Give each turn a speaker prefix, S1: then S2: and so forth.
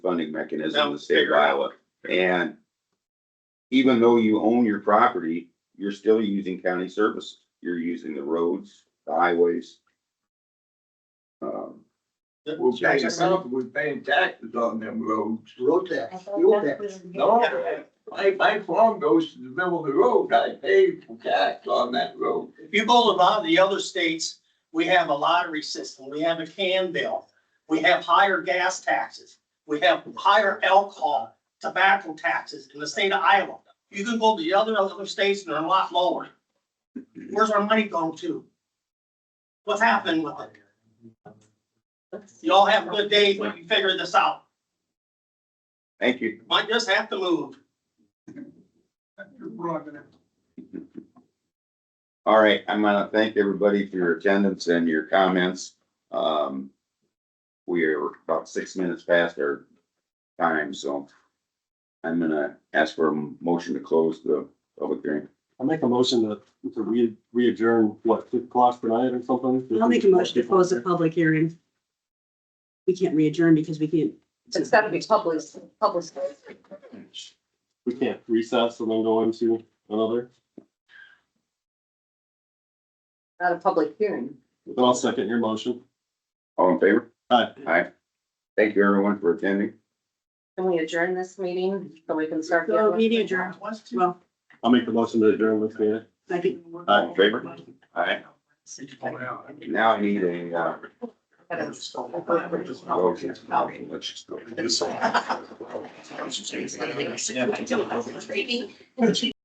S1: funding mechanism in the
S2: Let's
S1: state of
S2: figure it out.
S1: Iowa. And even though you own your property, you're still using county service. You're using the roads, the highways. Um,
S3: We're paying, we're paying taxes on them roads. Road tax. Fuel tax. No, my, my farm goes to the middle of the road. I pay for tax on that road.
S2: If you go to a lot of the other states, we have a lottery system, we have a can bill, we have higher gas taxes, we have higher alcohol, tobacco taxes in the state of Iowa. You can go to the other, other states and they're a lot lower. Where's our money going to? What's happening with it? Y'all have good days when you figure this out.
S1: thank you.
S2: Might just have to move.
S1: All right, I'm gonna thank everybody for your attendance and your comments. Um, we are about six minutes past our time, so I'm gonna ask for a motion to close the public hearing.
S4: I'll make a motion to, to re, re-adjourn, what, six o'clock tonight or something?
S5: I'll make a motion to close the public hearing. We can't re-adjourn because we can't.
S6: It's gotta be public, public.
S4: We can't recess and then go into another,
S6: not a public hearing.
S4: but I'll second your motion.
S1: All in favor?
S4: Aye.
S1: Aye. Thank you, everyone, for attending.
S6: Can we adjourn this meeting so we can start? the
S5: So
S6: other one?
S5: meeting adjourned, well,
S4: I'll make the motion to adjourn this meeting.
S5: I think.
S1: All in favor? Aye. Now I need a, uh, motion. Let's just go.